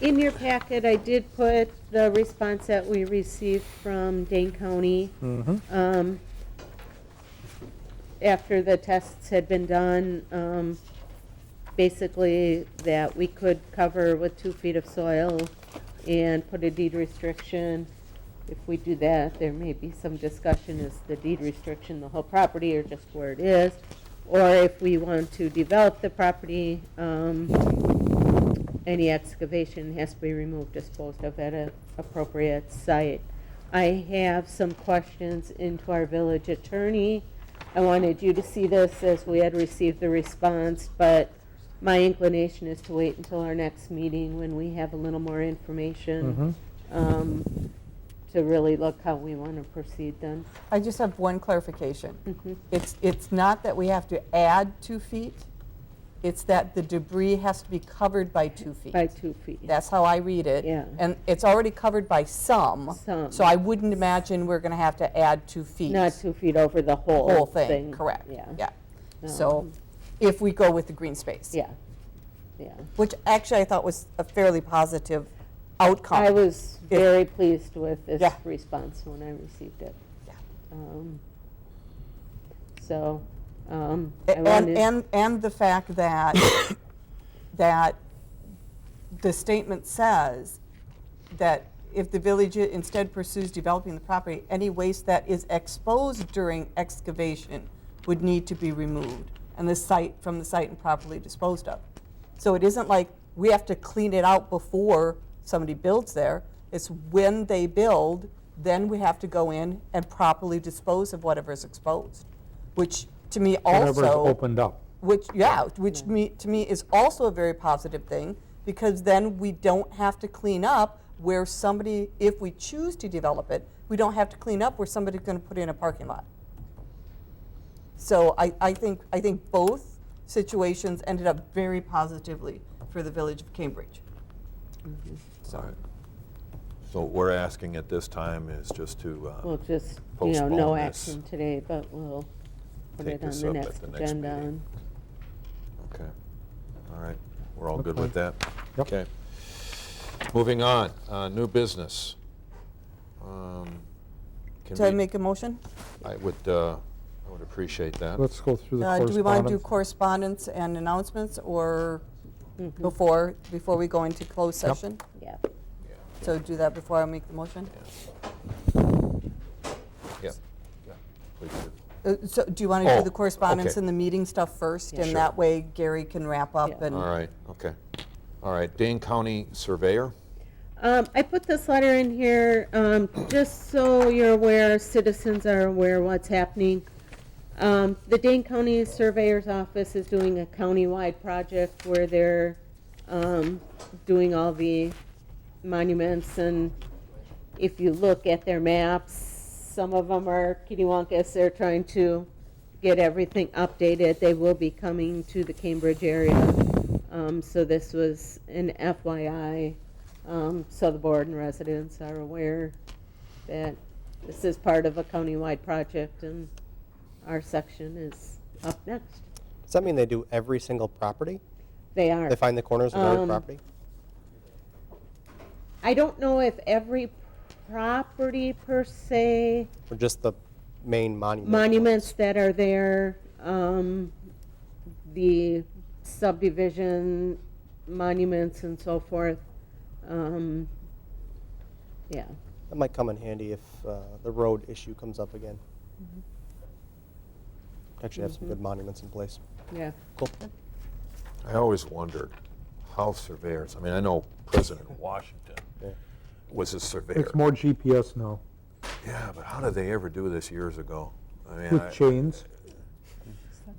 In your packet, I did put the response that we received from Dane County. Um, After the tests had been done, um, basically that we could cover with two feet of soil and put a deed restriction. If we do that, there may be some discussion, is the deed restriction the whole property or just where it is? Or if we want to develop the property, um, any excavation has to be removed, disposed of at an appropriate site. I have some questions into our village attorney. I wanted you to see this as we had received the response, but my inclination is to wait until our next meeting when we have a little more information um, to really look how we want to proceed then. I just have one clarification. Mhm. It's, it's not that we have to add two feet, it's that the debris has to be covered by two feet. By two feet. That's how I read it. Yeah. And it's already covered by some. Some. So I wouldn't imagine we're going to have to add two feet. Not two feet over the whole thing. Whole thing, correct. Yeah, Yeah. So if we go with the green space. yeah, yeah. Which actually I thought was a fairly positive outcome. I was If- very pleased with this Yeah. response when I received it. Yeah. Um, So, um, I And, wanted- and, and the fact that, that the statement says that if the village i- instead pursues developing the property, any waste that is exposed during excavation would need to be removed and the site, from the site and properly disposed of. So it isn't like we have to clean it out before somebody builds there. It's when they build, then we have to go in and properly dispose of whatever is exposed, which to me also Whatever's opened up. which yeah, which me, to me is also a very positive thing because then we don't have to clean up where somebody, if we choose to develop it, we don't have to clean up where somebody's going to put in a parking lot. So I, I think I think both situations ended up very positively for the village of Cambridge. So So what we're asking at this time is just to, uh, Hmm. we'll just, you know, no postpone this. action today, but we'll put Take it on this the up at next the next agenda. meeting. and- okay, all right, we're all good with that? Yep. Okay. Moving on, uh, new business. Um, can did I we- make a motion? I would, uh, I would appreciate that. Let's go through the Uh, do we want to do correspondence. correspondence and announcements or before before we go into closed Yep. session? Yeah. Yeah. So do that before I make the motion? Yeah. Yeah. We could- Uh, So do you want to do Oh, the correspondence okay. and the meeting stuff first? Yeah. And Sure. that way Gary can wrap up Yeah. and. All right, okay. All right, Dane County Surveyor, Um, I put this letter in here, um, just so you're aware, citizens are aware what's happening. Um, the Dane County Surveyor's Office is doing a countywide project where they're, um, doing all the monuments and if you look at their maps, some of them are Kittywankas, they're trying to get everything updated. They will be coming to the Cambridge area. Um, so this was an FYI, um, so the board and residents are aware that this is part of a countywide project and our section is up next. Does that mean they do every single property? They are. They find the corners of every Um, property? I don't know if every property per se, Or just the main monument? ones? monuments that are there, um, the subdivision monuments and so forth. Um, yeah, That might come in handy if uh, the road issue comes up again. Mm-hmm. Actually have some good monuments in place. yeah. Cool. I always wondered how surveyors, I mean, I know President Washington Yeah. was a surveyor. It's more GPS now, Yeah, but how did they ever do this years ago? I mean, I- with chains.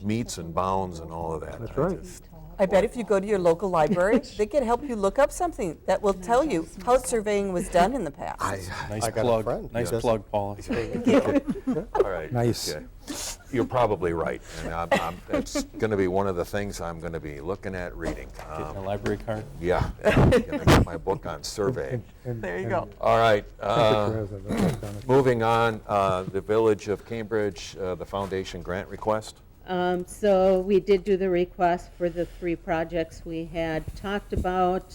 meets and bounds and all of that. That's I right. just- I bet if you go to your local library, they can help you look up something that will tell you how surveying was done in the past. I- Nice I got a plug. friend who Nice does- plug, Paul. all right. Nice. okay. You're probably right. And I'm, I'm, that's going to be one of the things I'm going to be looking at reading. Getting a Um, library card. yeah, I'm going to get my book on surveying. There you go. All right. uh, go. moving on, uh, the Village of Cambridge, uh, the foundation grant request. Um, so we did do the request for the three projects we had talked about.